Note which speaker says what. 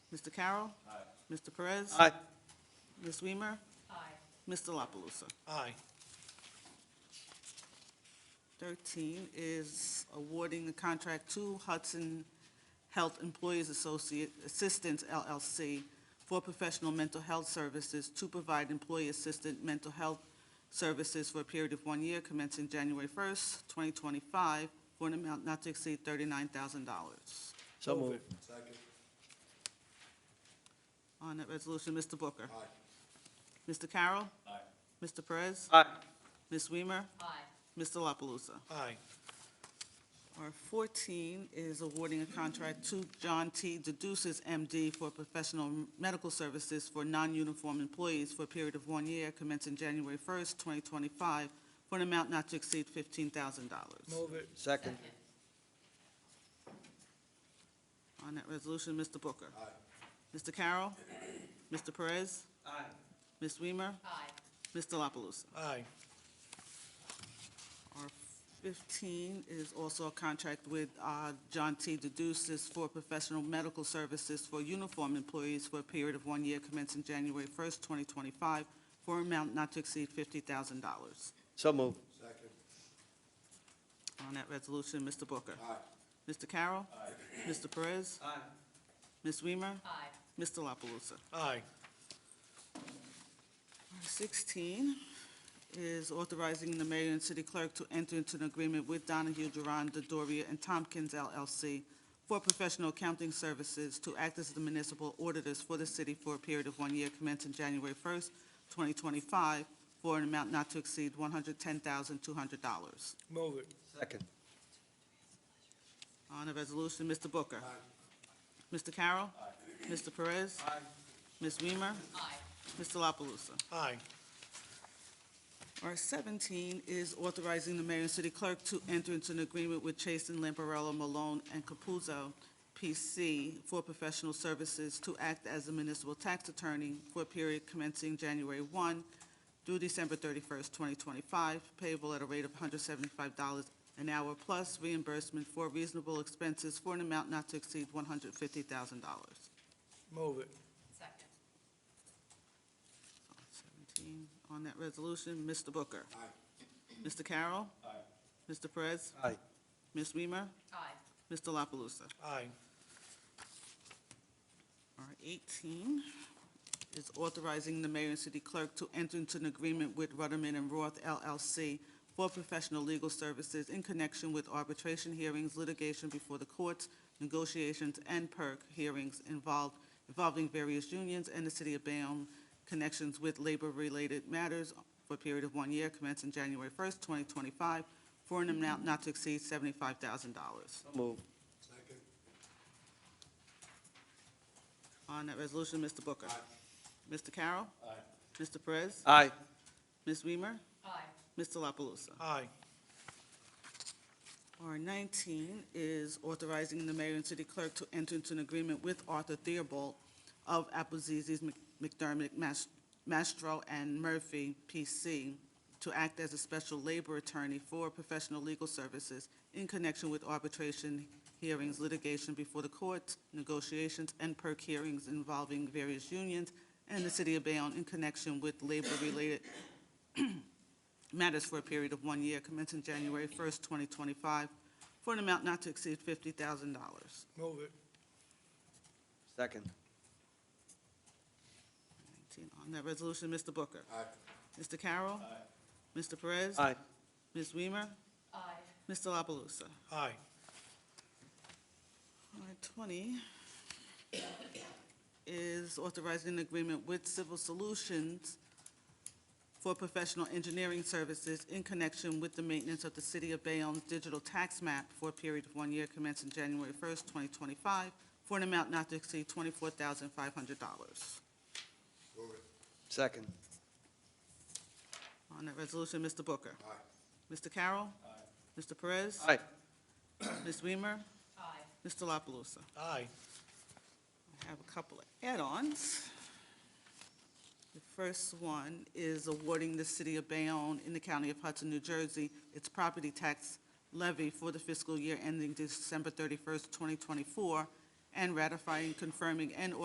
Speaker 1: Mr. Carroll? Aye. Mr. Perez?
Speaker 2: Aye.
Speaker 1: Ms. Weimer?
Speaker 3: Aye.
Speaker 1: Mr. La Palusa?
Speaker 2: Aye.
Speaker 1: Thirteen is awarding the contract to Hudson Health Employees Associate Assistance LLC for professional mental health services to provide employee-assisted mental health services for a period of one year commencing January first, twenty twenty-five, for an amount not to exceed thirty-nine thousand dollars.
Speaker 2: So move.
Speaker 4: Second.
Speaker 1: On that resolution, Mr. Booker? Mr. Carroll?
Speaker 4: Aye.
Speaker 1: Mr. Perez?
Speaker 2: Aye.
Speaker 1: Ms. Weimer?
Speaker 3: Aye.
Speaker 1: Mr. La Palusa?
Speaker 2: Aye.
Speaker 1: R fourteen is awarding a contract to John T. Deduces, M.D., for professional medical services for non-uniform employees for a period of one year commencing January first, twenty twenty-five, for an amount not to exceed fifteen thousand dollars.
Speaker 2: Move it. Second.
Speaker 3: Second.
Speaker 1: On that resolution, Mr. Booker. Mr. Carroll. Mr. Perez.
Speaker 2: Aye.
Speaker 1: Ms. Weimer.
Speaker 3: Aye.
Speaker 1: Mr. La Palusa.
Speaker 2: Aye.
Speaker 1: R fifteen is also a contract with uh, John T. Deduces for professional medical services for uniform employees for a period of one year commencing January first, twenty twenty-five, for an amount not to exceed fifty thousand dollars.
Speaker 2: So move.
Speaker 4: Second.
Speaker 1: On that resolution, Mr. Booker.
Speaker 4: Aye.
Speaker 1: Mr. Carroll. Mr. Perez.
Speaker 2: Aye.
Speaker 1: Ms. Weimer.
Speaker 3: Aye.
Speaker 1: Mr. La Palusa.
Speaker 2: Aye.
Speaker 1: 16 is authorizing the mayor and city clerk to enter into an agreement with Donahue, Duran, Doria, and Tompkins LLC for professional accounting services to act as the municipal auditors for the city for a period of one year commencing January 1st, 2025, for an amount not to exceed $110,200.
Speaker 2: Move it. Second.
Speaker 1: On the resolution, Mr. Booker. Mr. Carroll. Mr. Perez.
Speaker 2: Aye.
Speaker 1: Ms. Weimer.
Speaker 3: Aye.
Speaker 1: Mr. La Palusa.
Speaker 2: Aye.
Speaker 1: R seventeen is authorizing the mayor and city clerk to enter into an agreement with Chasen, Lamparello, Malone, and Capuzzo, P.C., for professional services to act as a municipal tax attorney for a period commencing January one through December thirty-first, twenty twenty-five, payable at a rate of hundred seventy-five dollars an hour plus reimbursement for reasonable expenses for an amount not to exceed one hundred fifty thousand dollars.
Speaker 2: Move it.
Speaker 3: Second.
Speaker 1: Seventeen, on that resolution, Mr. Booker. Mr. Carroll. Mr. Perez.
Speaker 2: Aye.
Speaker 1: Ms. Weimer,
Speaker 3: Aye.
Speaker 1: Mr. La Palusa.
Speaker 2: Aye.
Speaker 1: R eighteen is authorizing the mayor and city clerk to enter into an agreement with Rudderman and Roth LLC for professional legal services in connection with arbitration hearings, litigation before the courts, negotiations, and perk hearings involved, involving various unions and the city of Bayonne, connections with labor-related matters for a period of one year commencing January first, twenty twenty-five, for an amount not to exceed seventy-five thousand dollars.
Speaker 2: So move.
Speaker 4: Second.
Speaker 1: On that resolution, Mr. Booker. Mr. Carroll. Mr. Perez.
Speaker 2: Aye.
Speaker 1: Ms. Weimer.
Speaker 3: Aye.
Speaker 1: Mr. La Palusa.
Speaker 2: Aye.
Speaker 1: R nineteen is authorizing the mayor and city clerk to enter into an agreement with Arthur Theobald of Appleseas, McDermott, Mas- Mastro, and Murphy, P.C., to act as a special labor attorney for professional legal services in connection with arbitration hearings, litigation before the courts, negotiations, and perk hearings involving various unions and the city of Bayonne in connection with labor-related matters for a period of one year commencing January 1st, 2025, for an amount not to exceed $50,000.
Speaker 2: Move it. Second.
Speaker 1: On that resolution, Mr. Booker.
Speaker 4: Aye.
Speaker 1: Mr. Carroll. Mr. Perez.
Speaker 2: Aye.
Speaker 1: Ms. Weimer.
Speaker 3: Aye.
Speaker 1: Mr. La Palusa.
Speaker 2: Aye.
Speaker 1: Item 20 is authorizing an agreement with Civil Solutions for professional engineering services in connection with the maintenance of the City of Bayonne's digital tax map for a period of one year commencing January 1st, 2025, for an amount not to exceed $24,500.
Speaker 4: Move it.
Speaker 2: Second.
Speaker 1: On that resolution, Mr. Booker.
Speaker 4: Aye.
Speaker 1: Mr. Carroll. Mr. Perez.
Speaker 2: Aye.
Speaker 1: Ms. Weimer.
Speaker 3: Aye.
Speaker 1: Mr. La Palusa.
Speaker 2: Aye.
Speaker 1: I have a couple of add-ons. The first one is awarding the city of Bayonne in the county of Hudson, New Jersey, its property tax levy for the fiscal year ending December thirty-first, twenty twenty-four, and ratifying, confirming, and